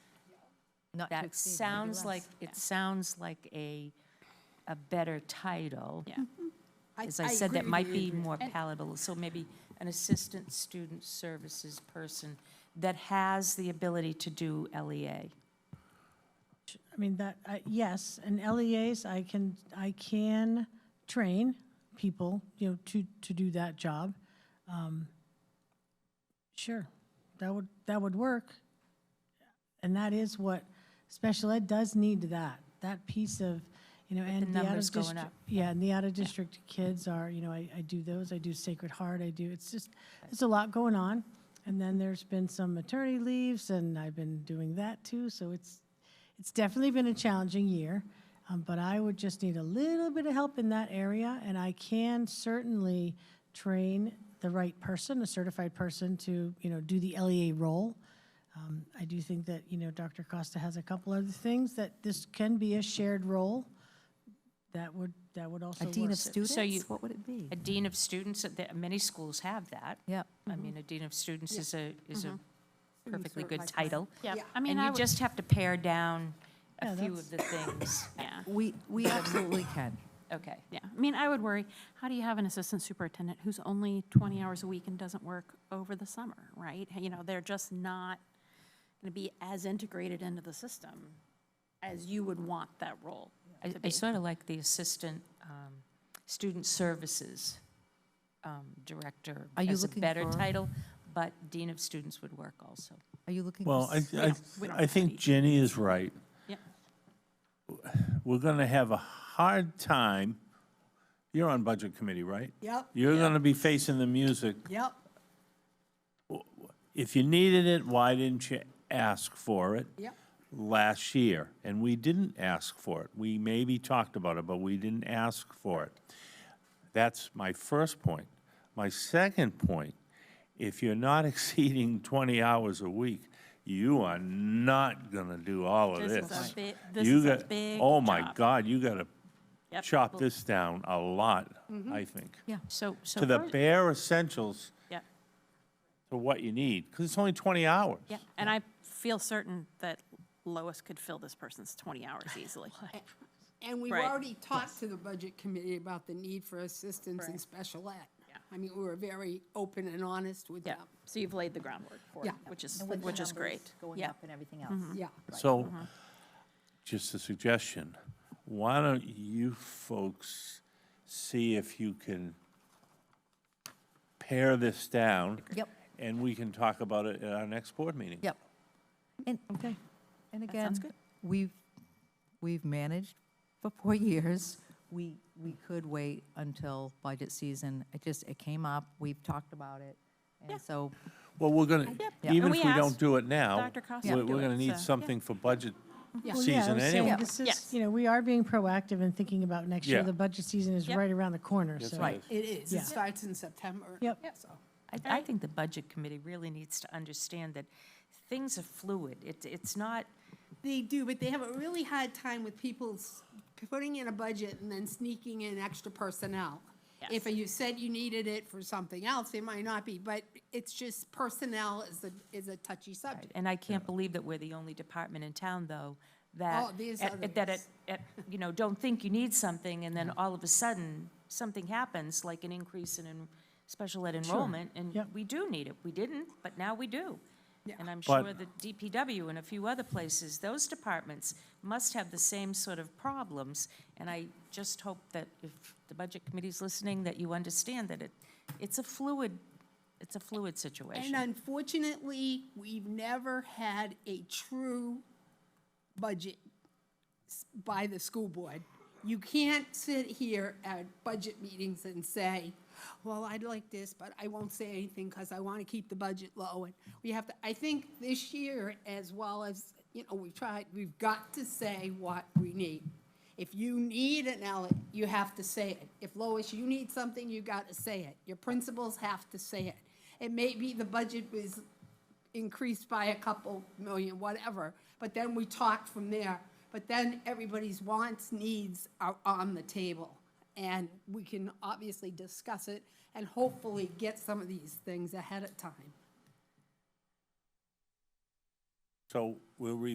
Not to That exceed, maybe sounds less. like, it sounds like a, a better title. Yeah. As Mm-hmm. I said, that might be more palatable, so maybe an assistant student services person that has the ability to do E LEA. I mean, that, I- yes, and LEAs, I can, I can train people, you know, to, to do that job. Um, Sure, that would, that would work. And that is what, special ed does need that, that piece of, you know, and the out numbers of going district. up. Yeah, and the out of district kids are, you know, I, I do those, I do Sacred Heart, I do, it's just, there's a lot going on. And then there's been some maternity leaves and I've been doing that too, so it's, it's definitely been a challenging year, um, but I would just need a little bit of help in that area, and I can certainly train the right person, a certified person, to you know do the LEA role. Um, I do think that you know Dr. Costa has a couple other things that this can be a shared role. That would that would also A dean work. of you- students, what would it be? A dean of students, uh, there- many schools have that. Yeah. I mean, a dean of students is a, is a perfectly good certified. title. Yeah, Yeah. I mean, And I you would, just have to pare down Yeah, a few of that's- the things. yeah, We, we absolutely can. Okay. yeah. I mean, I would worry, how do you have an assistant superintendent who's only 20 hours a week and doesn't work over the summer, right? You know, they're just not going to be as integrated into the system as you would want that role I, to I be. sort of like the assistant, um, student services, um, director Are you as a looking better for- title, but dean of students would work also. Are you looking? for Well, I, s- I, don't- we don't I have think any. Jenny is right. Yeah. We're gonna have a hard time, you're on Budget Committee, right? Yep, You're gonna be facing the music. yep, If you needed it, why didn't you ask for it? yep. last year, and we didn't ask for it. We maybe talked about it, but we didn't ask for it. That's my first point. My second point, if you're not exceeding 20 hours a week, you are not gonna do all of This is this. a big- this You is a got- big Oh, my job. God, you gotta Yep. chop this down a lot, I think. Yeah. So, so. To the first- bare essentials Yeah, to what you need, because it's only 20 hours. yeah. And I feel certain that Lois could fill this person's 20 hours easily. And we've Right. already talked to the budget committee about the need for assistance in special ed. Yeah. I mean, we were very open and honest with Yeah, them. so you've laid the groundwork for it, Yeah. which is, And with the which is numbers great. Going Yeah. up and everything else. Mm-hmm. Yeah, So, uh-huh. just a suggestion, why don't you folks see if you can pare this down? Yep. And we can talk about it at our next board meeting. Yep. And, okay. And again, we've, we've managed for four years. We, we could wait until budget season. It just, it came up, we've talked about it. Yeah. And so, Well, we're gonna, Yeah. even And if we we don't asked do it now, Dr. Costa we're to do we're it, gonna so- need yeah. something for budget Yeah. Well, yeah, I season was saying anyway. This is, Yes. you know, we are being proactive and thinking about next year. Yeah. The budget season is Yep. right around the corner, so. right. it is. Yeah. It starts in September. Yep. So, I, I think the budget committee really needs to understand that things are fluid. It's, it's not, They do, but they have a really hard time with people s- putting in a budget and then sneaking in extra personnel. If you said you needed it for something else, it might not be, but it's just personnel is a, is a touchy subject. and I can't believe that we're the only department in town, though, that. Oh, there's at- at- That, others. at- at, you know, don't think you need something, and then all of a sudden, something happens, like an increase in en- special ed enrollment, and Yep. we do need it. We didn't, but now we do. And I'm But- sure the DPW and a few other places, those departments must have the same sort of problems. And I just hope that if the budget committee's listening, that you understand that it, it's a fluid, it's a fluid situation. And unfortunately, we've never had a true budget s- by the school board. You can't sit here at budget meetings and say, well, I'd like this, but I won't say anything because I want to keep the budget low. And we have to, I think this year, as well as, you know, we've tried, we've got to say what we need. If you need an L, you have to say it. If Lois, you need something, you got to say it. Your principals have to say it. It may be the budget was increased by a couple million, whatever, but then we talk from there. But then everybody's wants, needs are on the table. And we can obviously discuss it and hopefully get some of these things ahead of time. So we'll re-